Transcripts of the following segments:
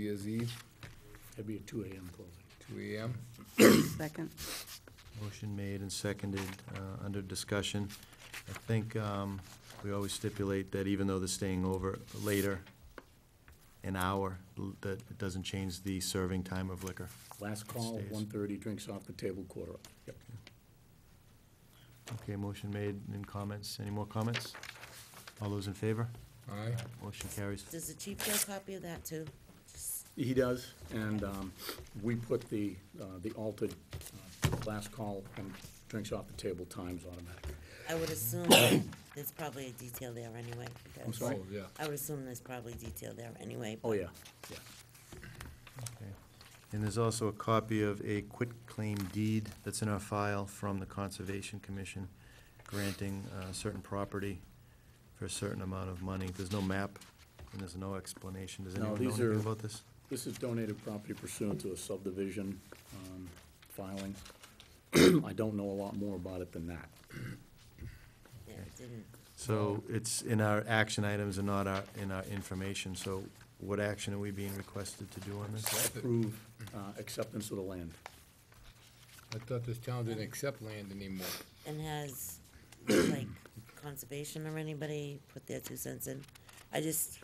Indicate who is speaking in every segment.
Speaker 1: Franchisee,
Speaker 2: That'd be a two AM closing.
Speaker 1: two AM.
Speaker 3: Second.
Speaker 4: Motion made and seconded, uh, under discussion. I think um, we always stipulate that even though they're staying over later, an hour, l- that it doesn't change the serving time of liquor.
Speaker 2: Last call,
Speaker 4: Stays.
Speaker 2: one thirty, drinks off the table, quarter up. Yep.
Speaker 4: Okay, motion made and comments. Any more comments? All those in favor?
Speaker 1: Aye.
Speaker 4: Motion carries.
Speaker 5: Does the chief get a copy of that too?
Speaker 2: He does, and um, we put the, uh, the altered uh, last call and drinks off the table times automatic.
Speaker 5: I would assume there's probably a detail there anyway.
Speaker 2: I'm
Speaker 5: because-
Speaker 2: sorry?
Speaker 1: Oh, yeah.
Speaker 5: I would assume there's probably detail there anyway.
Speaker 2: Oh, yeah, yeah.
Speaker 4: Okay. And there's also a copy of a quitclaim deed that's in our file from the Conservation Commission granting uh, certain property for a certain amount of money. There's no map and there's no explanation. Does
Speaker 2: No,
Speaker 4: anyone know
Speaker 2: these
Speaker 4: anything
Speaker 2: are-
Speaker 4: about this?
Speaker 2: This is donated property pursuant to a subdivision um, filing. I don't know a lot more about it than that.
Speaker 5: Yeah, it didn't.
Speaker 4: So it's in our action items and not our, in our information. So what action are we being requested to do on this?
Speaker 2: Approve uh, acceptance of the land.
Speaker 1: I thought this town didn't accept land anymore.
Speaker 5: And has, like, conservation or anybody put their two cents in? I just,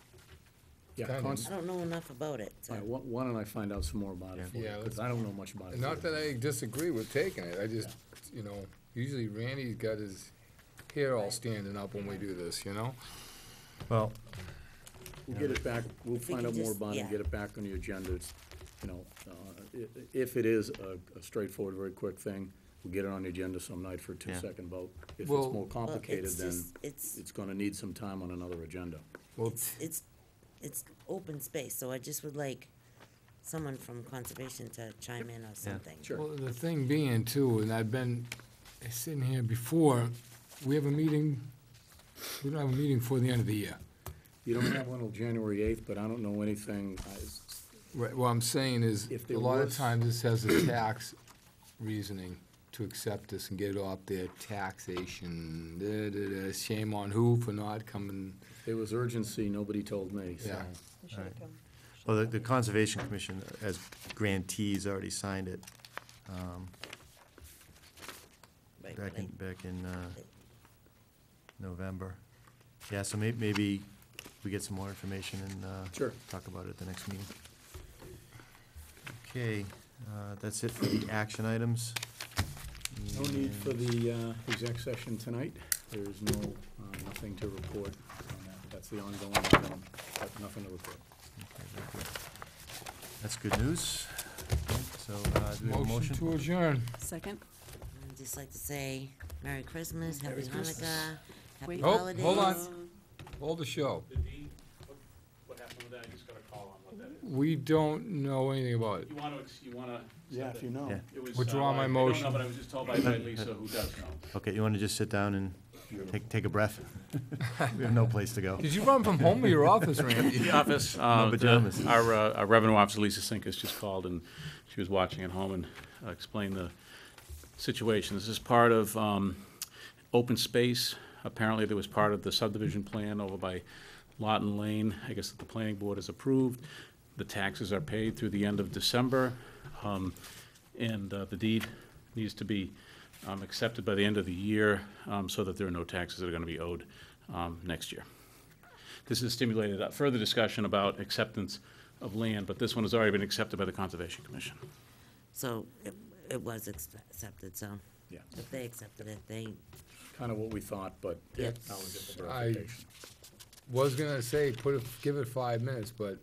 Speaker 2: Yeah,
Speaker 1: Kinda.
Speaker 2: cons-
Speaker 5: I don't know enough about it,
Speaker 2: all
Speaker 5: so.
Speaker 2: right, why- why don't I find out some more about it
Speaker 4: Yeah.
Speaker 2: for you,
Speaker 1: Yeah, let's-
Speaker 2: because I don't know much about it.
Speaker 1: Not that I disagree with taking it, I just, you know, usually Randy's got his hair all standing up when we do this, you know?
Speaker 4: Well,
Speaker 2: We'll get it back, we'll
Speaker 5: If we
Speaker 2: find
Speaker 5: could
Speaker 2: out more
Speaker 5: just-
Speaker 2: about it, and
Speaker 5: yeah.
Speaker 2: get it back on the agenda, It's, you know, uh, i- if it is a a straightforward, very quick thing, we'll get it on the agenda some night for a
Speaker 4: Yeah.
Speaker 2: two-second vote. If it's
Speaker 1: Well-
Speaker 2: more
Speaker 5: Well,
Speaker 2: complicated,
Speaker 5: it's
Speaker 2: then
Speaker 5: just- It's,
Speaker 2: it's gonna need some time on another agenda.
Speaker 1: Well,
Speaker 5: it's, it's, it's open space, so I just would like someone from conservation to chime in or something.
Speaker 2: Sure.
Speaker 1: Well, the thing being too, and I've been sitting here before, we have a meeting, we don't have a meeting before the end of the year.
Speaker 2: You don't have one till January eighth, but I don't know anything, I-
Speaker 1: Right, what I'm saying is,
Speaker 2: If
Speaker 1: a
Speaker 2: there
Speaker 1: lot of
Speaker 2: was-
Speaker 1: times this has a tax reasoning to accept this and get it off their taxation, da, da, da, shame on who for not coming,
Speaker 2: there was urgency, nobody told me, so.
Speaker 1: yeah.
Speaker 4: well, the- the Conservation Commission, as grantees, already signed it um,
Speaker 5: Right,
Speaker 4: back in,
Speaker 5: like,
Speaker 4: back in uh, November. Yeah, so may- maybe we get some more information and uh,
Speaker 2: Sure.
Speaker 4: talk about it at the next meeting. Okay, uh, that's it for the action items.
Speaker 2: No need for
Speaker 4: And-
Speaker 2: the uh, exec session tonight. There is no, uh, nothing to report on that. That's the ongoing, item, but nothing to report.
Speaker 4: okay, very good. That's good news. So, uh, do we have a
Speaker 1: Motion to adjourn.
Speaker 3: Second.
Speaker 5: I'd just like to say Merry Christmas, Happy
Speaker 2: Merry Christmas.
Speaker 5: Hanukkah, Happy
Speaker 3: Wait.
Speaker 1: Oh,
Speaker 5: holidays.
Speaker 1: hold on. Hold the show.
Speaker 6: The deed, what, what happened with that, I just got a call on what that is.
Speaker 1: We don't know anything about it.
Speaker 6: You wanna, ex- you wanna.
Speaker 2: you know.
Speaker 4: Yeah.
Speaker 6: It was, uh,
Speaker 1: Withdraw
Speaker 6: well,
Speaker 1: my
Speaker 6: I- I don't
Speaker 1: motion.
Speaker 6: know, but I was just told by by Lisa, who does know.
Speaker 4: Okay, you want to just sit down and take, take a breath? We have no place to go.
Speaker 1: Did you run from home to your office, Randy?
Speaker 6: The office, uh, the-
Speaker 4: pajamas.
Speaker 6: our, uh, our revenue officer, Lisa Sinkus, just called and she was watching at home and uh, explained the situation. This is part of, um, open space. Apparently, there was part of the subdivision plan over by Lawton Lane. I guess that the planning board has approved. The taxes are paid through the end of December. Um, and, uh, the deed needs to be, um, accepted by the end of the year, um, so that there are no taxes that are gonna be owed, um, next year. This has stimulated a further discussion about acceptance of land, but this one has already been accepted by the Conservation Commission.
Speaker 5: So it, it was ex- accepted, so
Speaker 2: Yeah,
Speaker 5: if they accepted it, they,
Speaker 2: kind of what we thought, but now
Speaker 5: Yep.
Speaker 2: we get the
Speaker 1: I-
Speaker 2: verification.
Speaker 1: Was gonna say, put, it- give it five minutes, but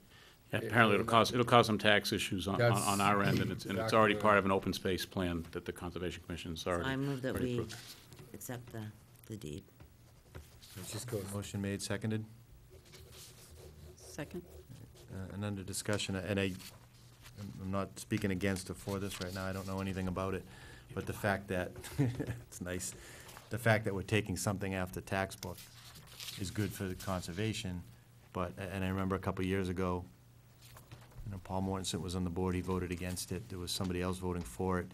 Speaker 6: Yeah, Apparently, it'll cause, it'll cause some tax issues on, on- on our end, and it's, and it's already
Speaker 1: That's-
Speaker 6: part of an open space plan that the Conservation Commission's already.
Speaker 5: I move that
Speaker 6: already
Speaker 5: we
Speaker 6: approved.
Speaker 5: accept the, the deed.
Speaker 1: it just goes.
Speaker 4: Motion made, seconded,
Speaker 3: Second.
Speaker 4: uh, and under discussion, and I, I'm not speaking against or for this right now, I don't know anything about it, but the fact that, it's nice, the fact that we're taking something off the tax book is good for the conservation, but, and I remember a couple of years ago, you know, Paul Mortensen was on the board, he voted against it, there was somebody else voting for it,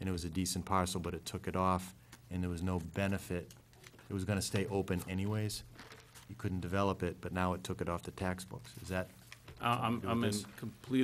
Speaker 4: and it was a decent parcel, but it took it off, and there was no benefit. It was gonna stay open anyways, you couldn't develop it, but now it took it off the tax books, is that?
Speaker 6: I- uh, I'm, I'm in complete